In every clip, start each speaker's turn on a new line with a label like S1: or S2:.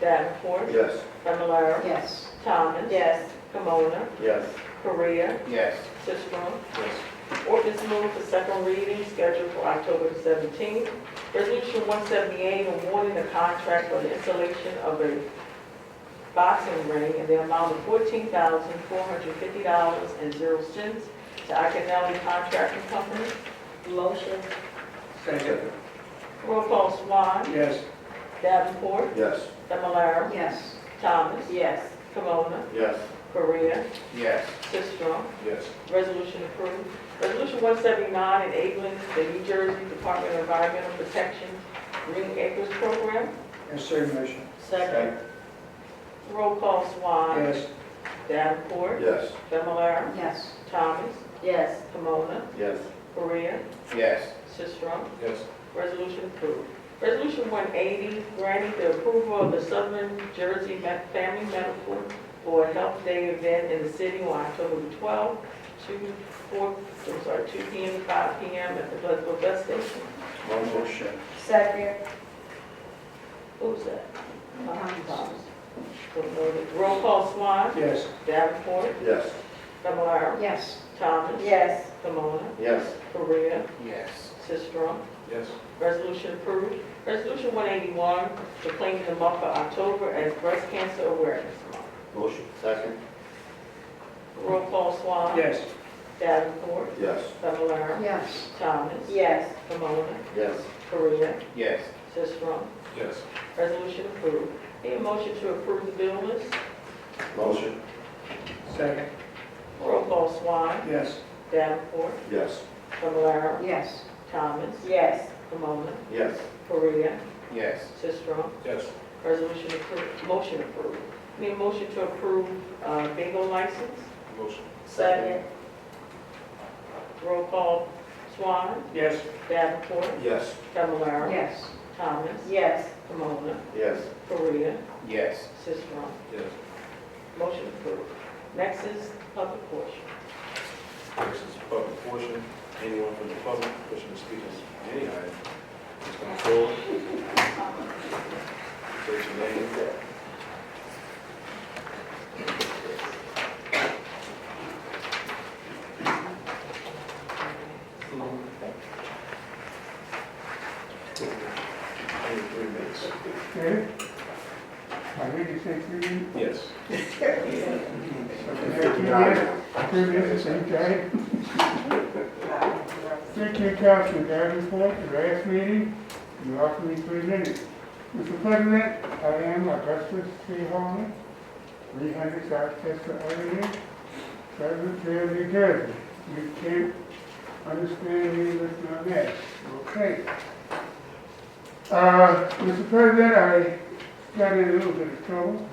S1: Davenport,
S2: Yes.
S1: Familar,
S3: Yes.
S1: Thomas.
S3: Yes.
S1: Kimona,
S2: Yes.
S1: Korea,
S2: Yes.
S1: Sisram.
S2: Yes.
S1: Ordinance moved for second reading scheduled for October the seventeenth. Resolution one seventy-eight awarding the contract for the installation of a boxing ring in the amount of fourteen thousand four hundred fifty dollars and zero cents to Iconelli Contracting Company.
S3: Motion.
S2: Second.
S1: Roll call Swan,
S2: Yes.
S1: Davenport,
S2: Yes.
S1: Familar,
S3: Yes.
S1: Thomas,
S3: Yes.
S1: Kimona,
S2: Yes.
S1: Korea,
S2: Yes.
S1: Sisram.
S2: Yes.
S1: Resolution approved. Resolution one seventy-nine enabling the New Jersey Department of Environmental Protection Green Acres Program.
S4: Insert motion.
S1: Roll call Swan.
S4: Yes.
S1: Davenport.
S2: Yes.
S1: Familar.
S3: Yes.
S1: Thomas.
S3: Yes.
S1: Kimona,
S2: Yes.
S1: Korea.
S2: Yes.
S1: Sisram.
S2: Yes.
S1: Resolution approved. Resolution one eighty granting the approval of the Southern Jersey Me- Family Medical Board Health Day event in the city on October the twelfth, two, four, I'm sorry, two P M. to five P M. at the Pleasantville Bus Station.
S2: Motion.
S3: Second.
S1: Who's that? Roll call Swan,
S4: Yes.
S1: Davenport,
S2: Yes.
S1: Familar,
S3: Yes.
S1: Thomas,
S3: Yes.
S1: Camona,
S2: Yes.
S1: Korea,
S2: Yes.
S1: Sistrum.
S2: Yes.
S1: Resolution approved. Resolution 181, proclaiming the month of October as Breast Cancer Awareness Month.
S2: Motion. Second.
S1: Roll call Swan.
S4: Yes.
S1: Davenport,
S2: Yes.
S1: Familar,
S3: Yes.
S1: Thomas,
S3: Yes.
S1: Camona,
S2: Yes.
S1: Korea,
S2: Yes.
S1: Sistrum.
S2: Yes.
S1: Resolution approved. Need a motion to approve the bill list?
S2: Motion.
S4: Second.
S1: Roll call Swan,
S4: Yes.
S1: Davenport,
S2: Yes.
S1: Familar,
S3: Yes.
S1: Thomas,
S3: Yes.
S1: Camona,
S2: Yes.
S1: Korea,
S2: Yes.
S1: Sistrum.
S2: Yes.
S1: Resolution approved, motion approved. Need a motion to approve uh, bingo license?
S2: Motion.
S3: Second.
S1: Roll call Swan,
S4: Yes.
S1: Davenport,
S2: Yes.
S1: Familar,
S3: Yes.
S1: Thomas,
S3: Yes.
S1: Camona,
S2: Yes.
S1: Korea,
S2: Yes.
S1: Sistrum.
S2: Yes.
S1: Motion approved. Next is public portion.
S5: This is public portion. Anyone from the public wishing to speak on any item, please come forward. State your name. Only three minutes.
S4: Okay. I really think you mean,
S5: Yes.
S4: three minutes, okay? Thank you, Council, Davenport, the last meeting, you offered me three minutes. Mr. President, I am Augustus C. Holman, three hundred South Chester Avenue, Pleasant Hill, New Jersey. You can't understand me with my mask, okay? Uh, Mr. President, I got in a little bit of trouble.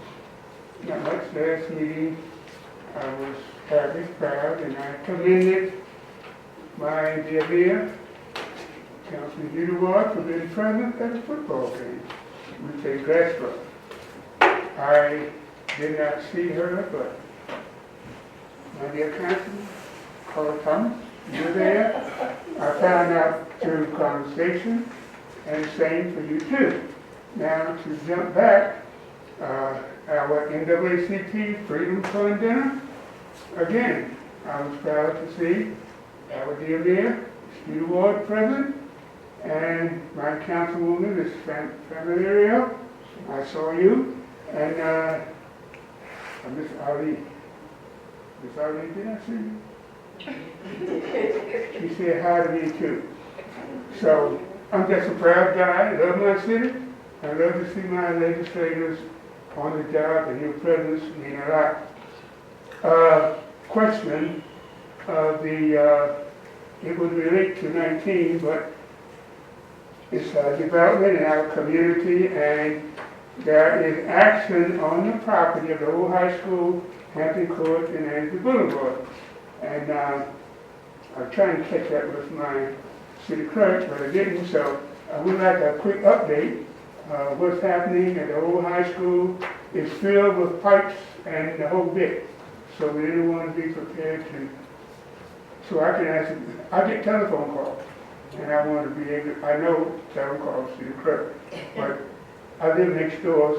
S4: Not much last meeting. I was happy, proud, and I commended my dear mayor, Councilman Udaward, for being present at the football game. We played Glassboro. I did not see her, but my dear councilman, Carl Thomas, you're there. I found out through conversation and same for you too. Now, to jump back, uh, our NAACP Freedom Fund dinner, again, I was proud to see our dear mayor, Steve Ward present, and my councilwoman, Ms. Fran- Familiario, I saw you, and, uh, uh, Ms. Ali. Ms. Ali, did I see you? She said hi to me too. So, I'm just a proud guy, I love my city, I love to see my legislators on the job, and your presence mean a lot. Uh, Question of the, uh, it would relate to 19, but it's uh, development in our community, and there is action on the property of the old high school, Hampton Court, and Andrew Boulevard. And uh, I'm trying to catch up with my city clerk, but I didn't, so I would like a quick update. Uh, What's happening at the old high school is filled with pipes and the whole bit. So we didn't want to be prepared to, so I can answer, I get telephone calls. And I want to be able, I know telephone calls to the clerk, but I live next door,